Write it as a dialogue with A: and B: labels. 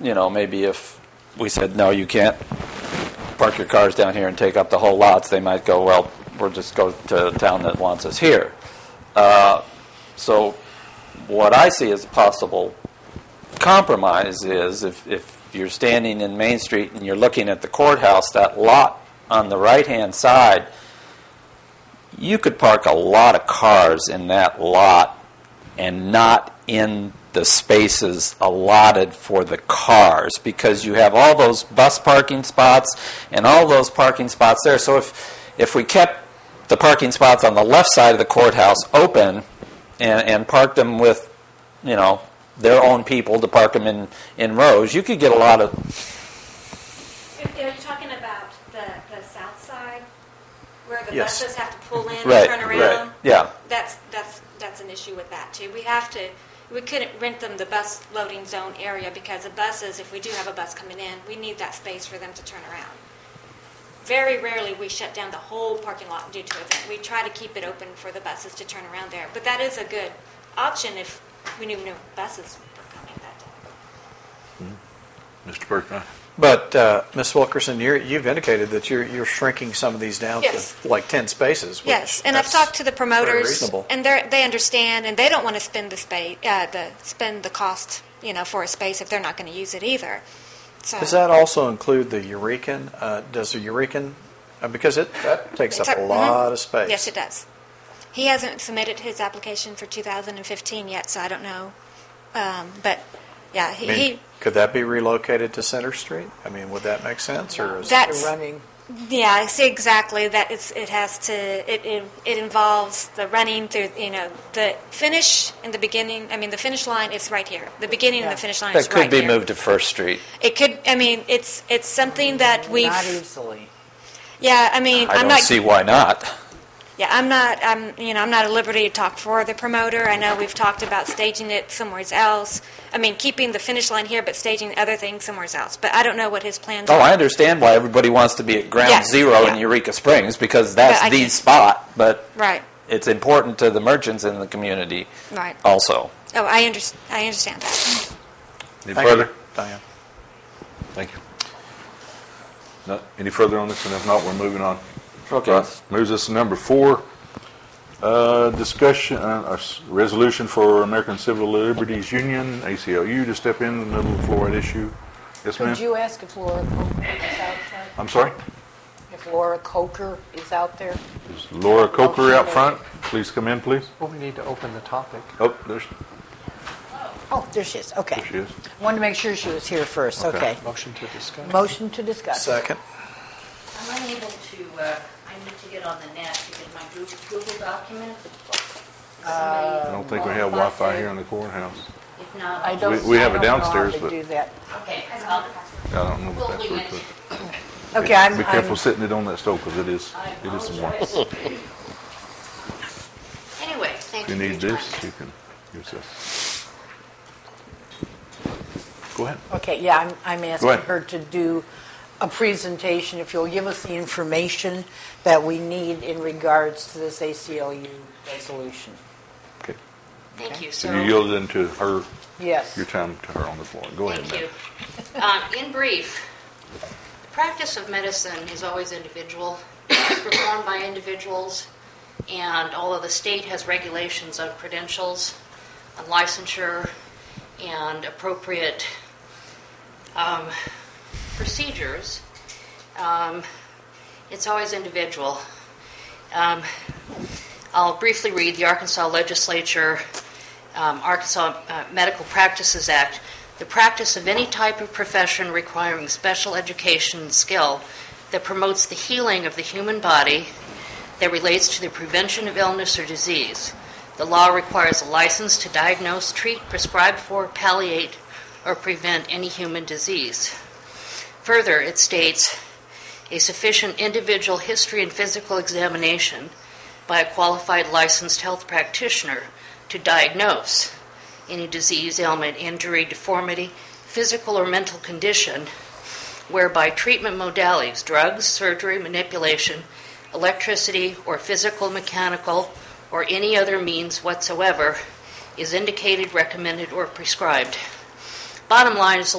A: you know, maybe if we said, no, you can't park your cars down here and take up the whole lots, they might go, well, we'll just go to the town that wants us here. Uh, So what I see as a possible compromise is if, if you're standing in Main Street and you're looking at the courthouse, that lot on the right-hand side, you could park a lot of cars in that lot and not in the spaces allotted for the cars because you have all those bus parking spots and all those parking spots there. So if, if we kept the parking spots on the left side of the courthouse open and, and parked them with, you know, their own people to park them in, in rows, you could get a lot of,
B: If- Are you talking about the, the south side, where the
C: Yes.
B: buses have to pull in and
A: right,
B: turn
A: right,
B: around?
A: yeah.
B: That's, that's, that's an issue with that, too. We have to, we couldn't rent them the bus loading zone area, because the buses, if we do have a bus coming in, we need that space for them to turn around. Very rarely we shut down the whole parking lot due to event. We try to keep it open for the buses to turn around there, but that is a good option if we knew no buses were coming that day.
C: Mr. Bergman?
D: But, uh, Ms. Wilkerson, you're, you've indicated that you're, you're shrinking some of these down
B: Yes.
D: to like 10 spaces. which
B: Yes, and I've
D: that's
B: talked to the
D: very
B: promoters,
D: reasonable.
B: and they they understand, and they don't want to spend the space, uh, the spend the cost, you know, for a space if they're not going to use it either. So
D: Does that also include the Eurekan? Uh, does the Eurekan, uh, because it, that takes
B: it's
D: up a
B: mhm.
D: lot of space.
B: Yes, it does. He hasn't submitted his application for 2015 yet, so I don't know. Um, but yeah,
D: I
B: he,
D: mean,
B: he
D: could that be relocated to Center Street? I mean, would that make sense, or is?
B: that's
E: running.
B: yeah, I see exactly that. It's it has to it, it it involves the running through you know the finish and the beginning. I mean, the finish line is right here. The beginning and
E: Yeah.
B: the finish line is
A: That could
B: right
A: be
B: here.
A: moved to First Street.
B: It could. I mean, it's it's something that we.
E: Not easily.
B: Yeah, I mean,
A: I
B: am
A: don't
B: not.
A: see why not.
B: yeah, I'm not. I'm you know I'm not at liberty to talk for the promoter. I know we've talked about staging it somewhere else. I mean, keeping the finish line here, but staging other things somewhere else. But I don't know what his plans
A: Oh,
B: are.
A: I understand why everybody wants to be at ground
B: Yeah,
A: zero in
B: yeah.
A: Eureka Springs because
B: But
A: that's
B: I
A: the
B: can't-
A: spot, but
B: Right.
A: it's important to the merchants in the community
B: Right.
A: also.
B: Oh, I under, I understand that.
C: Any
D: Thank you,
C: further?
D: Diane.
C: Thank you. No- Any further on this? And if not, we're moving on.
A: Okay.
C: Right. Moves us to number four, uh, discussion, uh, a s- resolution for American Civil Liberties Union, ACLU, to step in the middle of the fluoride issue. Yes,
E: Could
C: ma'am?
E: you ask if Laura Coker is out there?
C: I'm sorry?
E: If Laura Coker is out there?
C: Is Laura Coker out front? Please come in, please.
F: Well, we need to open the topic.
C: Oh, there's,
E: Oh, there she is, okay.
C: there she is.
E: Wanted to make sure she was here first,
C: Okay.
E: okay.
F: Motion to discuss.
E: Motion to discuss.
D: Second.
G: I'm unable to, uh, I need to get on the net to get my Goo- Google document.
C: I don't think we have Wi-Fi here in the courthouse.
G: If not,
E: I
G: I
E: don't, I
C: We-
E: don't
C: we have it
E: know how
C: downstairs,
E: to
C: but-
E: do that.
G: okay, I'll,
C: I don't know if
G: we'll
C: that's
G: leave
C: where
G: it.
C: to.
E: Okay, I'm,
C: Be careful
E: I'm,
C: sitting it on that stove because it is,
G: I
C: it is warm.
G: apologize. Anyway,
C: If
G: thank
C: you
G: you.
C: need
G: for your
C: this,
G: time.
C: you can use this. Go ahead.
E: okay, yeah, I'm, I'm asking
C: ahead.
E: her to do a presentation, if you'll give us the information that we need in regards to this ACLU resolution.
C: Okay.
G: Thank you,
C: So
G: so.
C: you yielded into her,
E: Yes.
C: your time to her on the floor. Go ahead,
G: Thank
C: ma'am.
G: you. Um, In brief, the practice of medicine is always individual, it's performed by individuals, and although the state has regulations on credentials, on licensure, and appropriate um, procedures, um, it's always individual. Um, I'll briefly read the Arkansas Legislature, um, Arkansas uh, Medical Practices Act. The practice of any type of profession requiring special education and skill that promotes the healing of the human body that relates to the prevention of illness or disease. The law requires a license to diagnose, treat, prescribe for, palliate, or prevent any human disease. Further, it states a sufficient individual history and physical examination by a qualified licensed health practitioner to diagnose any disease, ailment, injury, deformity, physical or mental condition whereby treatment modalities, drugs, surgery, manipulation, electricity, or physical, mechanical, or any other means whatsoever is indicated, recommended, or prescribed. Bottom line is the